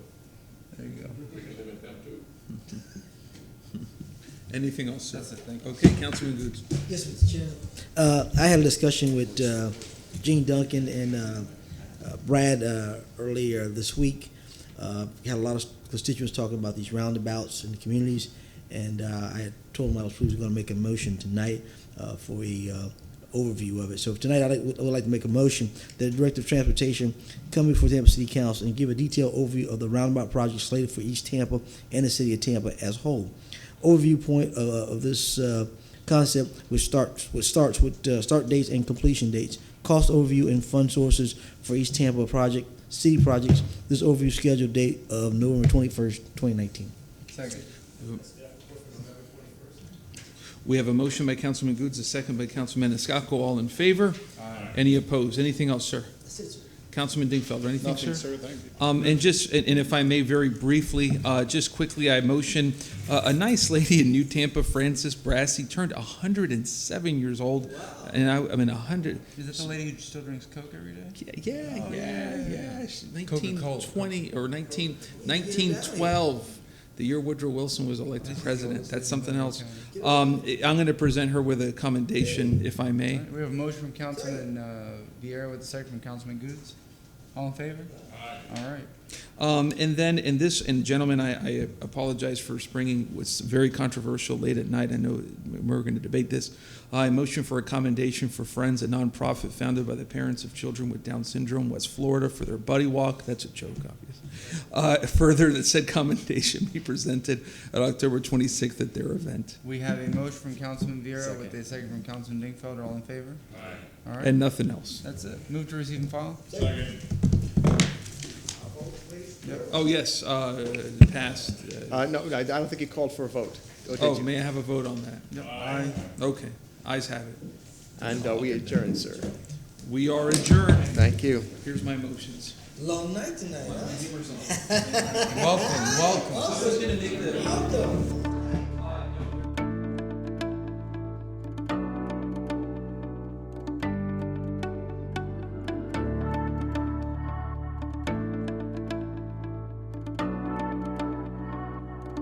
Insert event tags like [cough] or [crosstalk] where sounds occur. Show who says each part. Speaker 1: [laughs] Anything else, sir?
Speaker 2: That's it, thank
Speaker 1: Okay, Councilman Goods.
Speaker 3: Yes, Mr. Chairman. Uh, I had a discussion with uh, Gene Duncan and uh, uh, Brad uh, earlier this week. Uh, had a lot of constituents talking about these roundabouts in the communities, and uh, I had told them I was going to make a motion tonight uh, for a uh, overview of it. So tonight, I'd like- I would like to make a motion that the Director of Transportation come before Tampa City Council and give a detailed overview of the roundabout project slated for East Tampa and the city of Tampa as whole. Overview point of, of this uh, concept, which starts which starts with uh, start dates and completion dates, cost overview and fund sources for East Tampa project, city projects. This overview scheduled date of November twenty first, twenty nineteen.
Speaker 2: Second.
Speaker 1: We have a motion by Councilman Goods, a second by Councilman Maniscalco. All in favor? Aye. Any opposed? Anything else, sir? Councilman Dingfelder, anything, sir?
Speaker 2: thank you.
Speaker 1: Um, and just, and and if I may, very briefly, uh, just quickly, I motion, uh, a nice lady in New Tampa, Frances Brassey, turned hundred and seven years old. And I, I mean, hundred,
Speaker 2: Is that the lady who still drinks Coke every day?
Speaker 1: yeah, yeah, Oh, yeah, yeah. She-
Speaker 2: Coca-Cola.
Speaker 1: 1920 or 19, 1912, the year Woodrow Wilson was elected president. That's something else. Um, I- I'm going to present her with a commendation, if I may.
Speaker 2: We have a motion from Councilman uh, Vieira with a second from Councilman Goods. All in favor? All right.
Speaker 1: Um, and then, in this, and gentlemen, I, I apologize for springing what's very controversial late at night. I know we're going to debate this. I motion for a commendation for Friends, a nonprofit founded by the parents of children with Down syndrome, West Florida, for their buddy walk. That's a joke, obviously. Uh, further, that said commendation be presented at October 26th at their event.
Speaker 2: We have a motion from Councilman Vieira with a second from Councilman Dingfelder. All in favor? All right.
Speaker 1: And nothing else.
Speaker 2: That's it. Move to receive and file.
Speaker 1: Oh, yes, uh, passed. Uh,
Speaker 4: Uh, no, I I don't think you called for a vote. or did
Speaker 1: oh,
Speaker 4: you?
Speaker 1: may I have a vote on that? Okay, eyes have it.
Speaker 4: And uh, we adjourn, sir.
Speaker 1: We are adjourned.
Speaker 4: Thank you.
Speaker 1: Here's my motions.
Speaker 3: Long night tonight.
Speaker 2: Welcome, welcome.
Speaker 1: I was gonna make the-